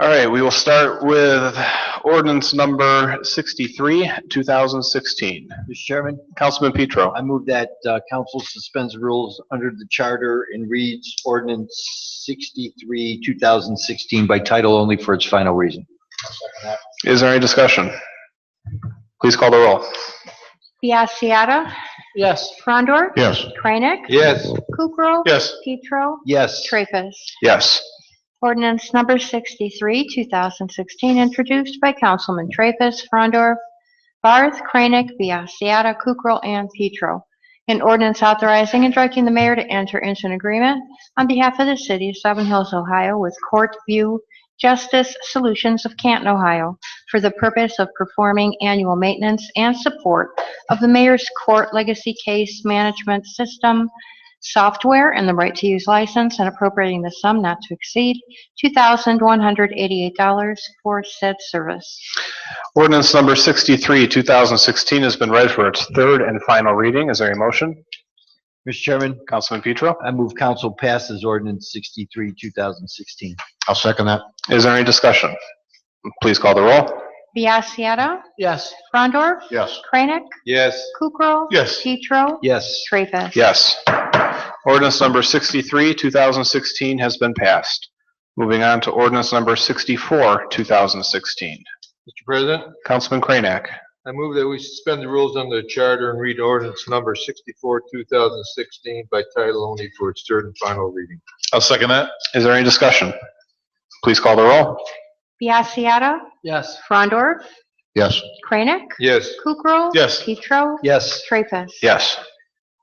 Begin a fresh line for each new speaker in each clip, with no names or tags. All right, we will start with ordinance number 63, 2016.
Mr. Chairman,
Councilman Petro.
I move that uh, council suspends rules under the charter and reads ordinance 63, 2016 by title only for its final reading.
Is there any discussion? Please call the roll.
Biassiata.
Yes.
Frondor.
Yes.
Kranek.
Yes.
Kukrow.
Yes.
Petro.
Yes.
Treffus.
Yes.
Ordinance number 63, 2016, introduced by Councilman Traffus, Frondor, Barth, Kranek, Biassiata, Kukrow, and Petro. An ordinance authorizing and directing the mayor to enter into an agreement on behalf of the city of Seven Hills, Ohio with Court View Justice Solutions of Canton, Ohio, for the purpose of performing annual maintenance and support of the mayor's court legacy case management system software and the right to use license and appropriating the sum not to exceed $2,188 for said service.
Ordinance number 63, 2016 has been read for its third and final reading. Is there a motion?
Mr. Chairman,
Councilman Petro.
I move council passes ordinance 63, 2016.
I'll second that. Is there any discussion? Please call the roll.
Biassiata.
Yes.
Frondor.
Yes.
Kranek.
Yes.
Kukrow.
Yes.
Petro.
Yes.
Treffus.
Yes. Ordinance number 63, 2016 has been passed. Moving on to ordinance number 64, 2016.
Mr. President,
Councilman Kranek.
I move that we suspend the rules under the charter and read ordinance number 64, 2016 by title only for its third and final reading.
I'll second that. Is there any discussion? Please call the roll.
Biassiata.
Yes.
Frondor.
Yes.
Kranek.
Yes,
Kukrow.
Yes.
Petro.
Yes.
Treffus.
Yes.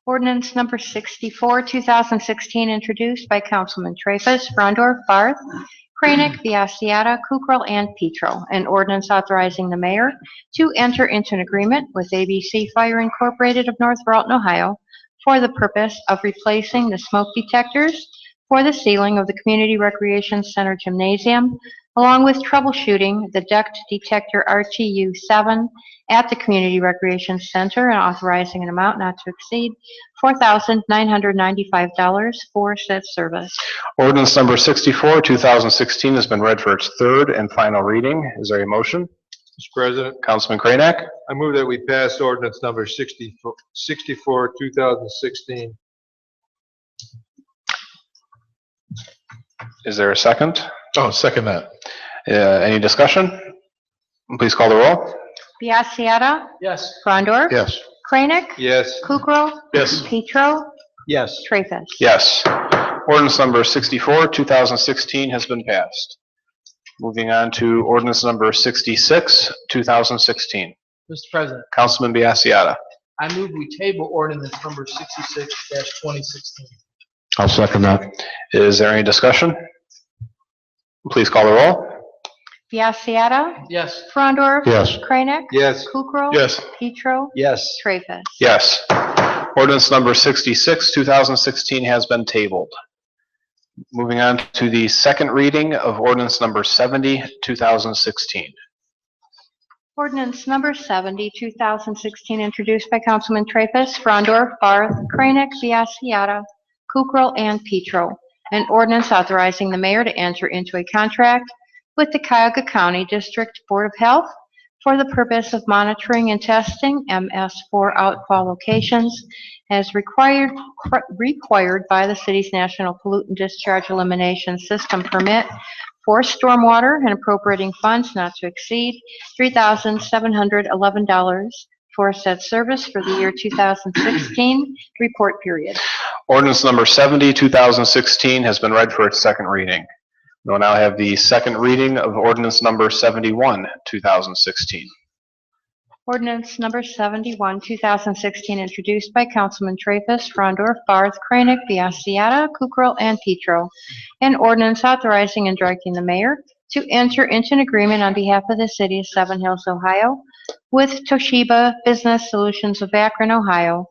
Ordinance number 64, 2016, introduced by Councilman Traffus, Frondor, Barth, Kranek, Biassiata, Kukrow, and Petro. An ordinance authorizing the mayor to enter into an agreement with ABC Fire Incorporated of North Carlton, Ohio, for the purpose of replacing the smoke detectors for the ceiling of the Community Recreation Center Gymnasium, along with troubleshooting the duct detector RTU-7 at the Community Recreation Center and authorizing an amount not to exceed $4,995 for said service.
Ordinance number 64, 2016 has been read for its third and final reading. Is there a motion?
Mr. President,
Councilman Kranek.
I move that we pass ordinance number 64, 64, 2016.
Is there a second?
Oh, second that.
Uh, Any discussion? Please call the roll.
Biassiata.
Yes.
Frondor.
Yes.
Kranek.
Yes,
Kukrow.
Yes.
Petro.
Yes.
Traffus.
Yes. Ordinance number 64, 2016 has been passed. Moving on to ordinance number 66, 2016.
Mr. President,
Councilman Biassiata.
I move we table ordinance number sixty-six twenty sixteen.
I'll second that. Is there any discussion? Please call the roll.
Biassiata.
Yes,
Frondor.
Yes.
Kranek.
yes,
Kukrow.
Yes.
Petro.
Yes.
Traffus.
Yes. Ordinance number 66, 2016 has been tabled. Moving on to the second reading of ordinance number 70, 2016.
Ordinance number 70, 2016, introduced by Councilman Traffus, Frondor, Barth, Kranek, Biassiata, Kukrow, and Petro. An ordinance authorizing the mayor to enter into a contract with the Cuyahoga County District Board of Health for the purpose of monitoring and testing MS4 outfall locations as required, required by the city's National Pollutant Discharge Elimination System permit for stormwater and appropriating funds not to exceed $3,711 for said service for the year 2016 report period.
Ordinance number 70, 2016 has been read for its second reading. We'll now have the second reading of ordinance number 71, 2016.
Ordinance number 71, 2016, introduced by Councilman Traffus, Frondor, Barth, Kranek, Biassiata, Kukrow, and Petro. An ordinance authorizing and directing the mayor to enter into an agreement on behalf of the city of Seven Hills, Ohio, with Toshiba Business Solutions of Akron, Ohio,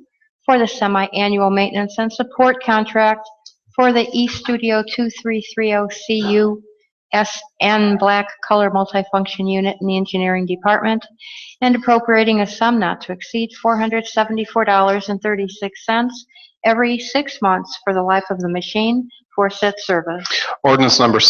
for the semi-annual maintenance and support contract for the East Studio 2330CU SN Black Color Multifunction Unit in the Engineering Department and appropriating a sum not to exceed $474.36 every six months for the life of the machine for said service.
Ordinance number